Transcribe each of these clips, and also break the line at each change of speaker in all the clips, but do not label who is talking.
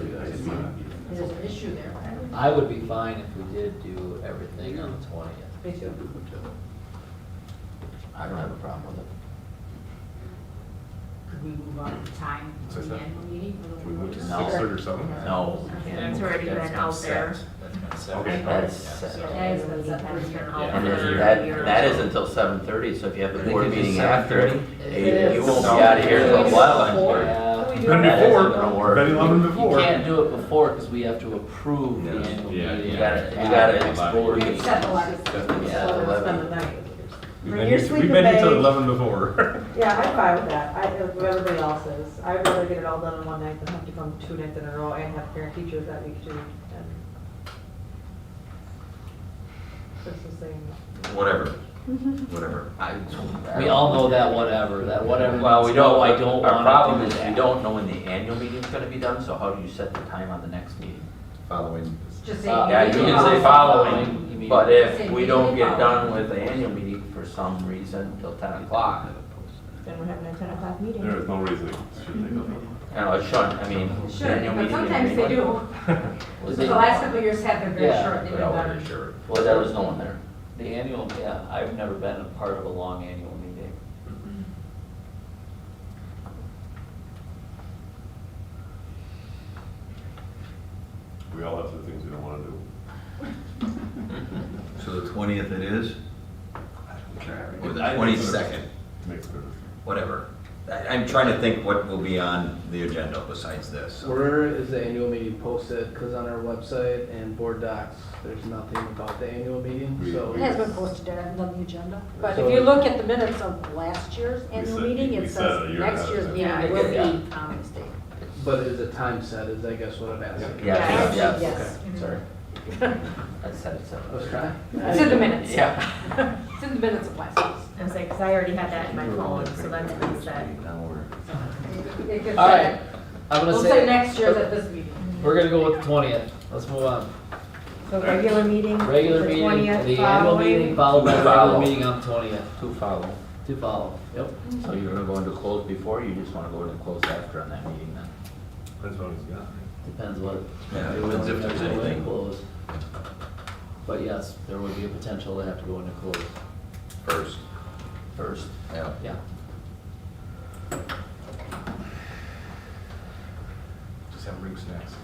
There's an issue there, right?
I would be fine if we did do everything on the twentieth.
Me too.
I don't have a problem with it.
Could we move on the time to the annual meeting? a little
We went to
earlier?
No.
six thirty or seven?
No. we can't
That's
move it.
already been
That's
out
set.
there.
That's kind of
Okay.
separate.
That's
Yeah.
set.
That is what's up there.
Yeah.
And if that, that is until seven thirty, so if you have
I
a
think
board
it's
meeting
7:30.
after, eh, you won't be
It's-
out of here for a
it's
while.
four.
Then
That
before,
isn't gonna work.
then eleven
You
before.
can't do it before because we have to approve the
Yeah.
annual
Yeah,
meeting.
yeah.
You gotta, you gotta explore.
We accept the letter.
Yeah, the eleven.
We've
Bring
been
your
here-
sleeping
We've been here till
bag.
eleven before.
Yeah, I'm fine with that. I, if everybody else is. I'd rather get it all done in one night than have to come two nights in a row and have parent teachers that week too. and- That's the same.
Whatever, whatever.
We all know that whatever, that whatever.
Well, we
means,
don't,
no, I don't
our problem
want
is
to
we
do
don't know when the annual meeting's gonna be done, so how do you set the time on the next meeting?
Following.
Just
Uh,
say.
that.
Yeah, you can say
You
following,
mean-
but if
Say
we don't
meeting
get done with the annual meeting for some reason till ten o'clock,
Then we're having a ten o'clock meeting.
There is no reason it should take that long.
I don't know, it shouldn't, uh, I mean.
It
the annual
Should, but
meeting is
sometimes they
anyway.
do.
Was
The
it-
last couple of years have been very
Yeah.
short, they've been
Well,
better.
we're sure.
Well, there was no one there.
The annual, yeah, I've never been a part of a long annual meeting.
We all have some things we don't wanna do.
So the twentieth it is?
Or the Twenty-second,
Makes a difference.
whatever. I- I'm trying to think what will be on the agenda besides this. so.
Where is the annual meeting posted? Because on our website and board docs, there's nothing about the annual meeting,
We-
so.
we-
It has been posted on the agenda, but
So-
if you look at the minutes of last year's annual
said-
meeting,
we
it
said a
says
year
next
ahead,
year's
so-
meeting
Yeah,
will
yeah.
be on this date.
But is the time set, is I guess what I'm asking.
Yeah,
Yeah,
yes,
yes.
okay, sorry. I said it
I was
so.
trying.
It's in the minutes.
Yeah.
It's in the minutes of last year's.
I was like, because I already had that in my phone, so that's been set.
Now we're-
It gets
All right,
better.
I'm gonna
We'll say
say,
next year's at this meeting.
we're gonna go with the twentieth. Let's move on.
So regular meeting,
Regular
the
meeting, the
20th
annual
following.
meeting followed by the regular
Follow.
meeting on twentieth
To follow.
to follow. Yep.
So you're gonna go into close before, or you just wanna go into close after on that meeting then?
That's what it's got.
Depends what.
Yeah,
we would
depends if
have
there's
to go
anything.
in close. But yes, there would be a potential to have to go into close
First.
first,
Yeah.
yeah.
Just have root snacks.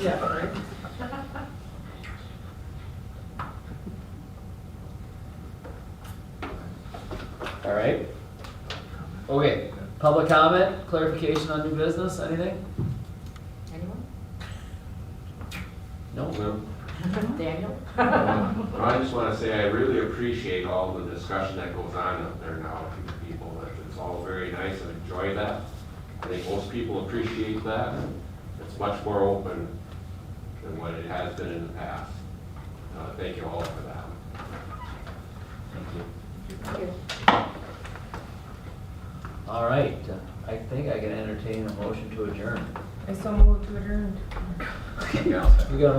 Yeah, right.
All right. Okay, public comment, clarification on new business, anything?
Anyone?
No?
Daniel?
I just want to say I really appreciate all the discussion that goes on up there now with people. It's all very nice and enjoy that. I think most people appreciate that. It's much more open than what it has been in the past. Uh, Thank you all for that.
All right, I think I can entertain a motion to adjourn.
I so moved to adjourn.
Yeah, I'll second.
We got a